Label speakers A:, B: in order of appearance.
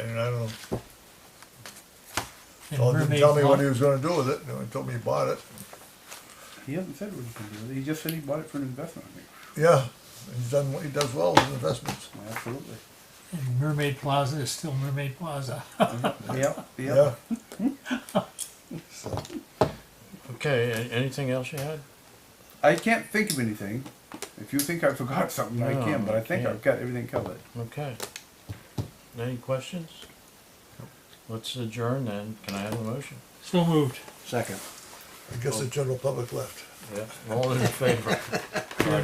A: I don't know.
B: And
A: Told him,
B: Mermaid
A: tell me what
B: Pond-
A: he was gonna do with it, and he told me he bought it.
C: He hasn't said what he's gonna do with it, he just said he bought it for an investment, I think.
A: Yeah, he's done, he does well with investments.
C: Well, Absolutely.
B: And Mermaid Plaza is still Mermaid Plaza.
C: Yep,
A: Yeah,
C: yep.
D: Okay, a- anything else you had?
C: I can't think of anything. If you think I forgot something, I
D: No,
C: can, but I
D: you
C: think
D: can't.
C: I've got everything covered.
D: Okay. Any questions? Let's adjourn then. Can I have a motion?
B: So moved.
E: Second.
A: I guess the general public left.
D: Yeah. All in favor?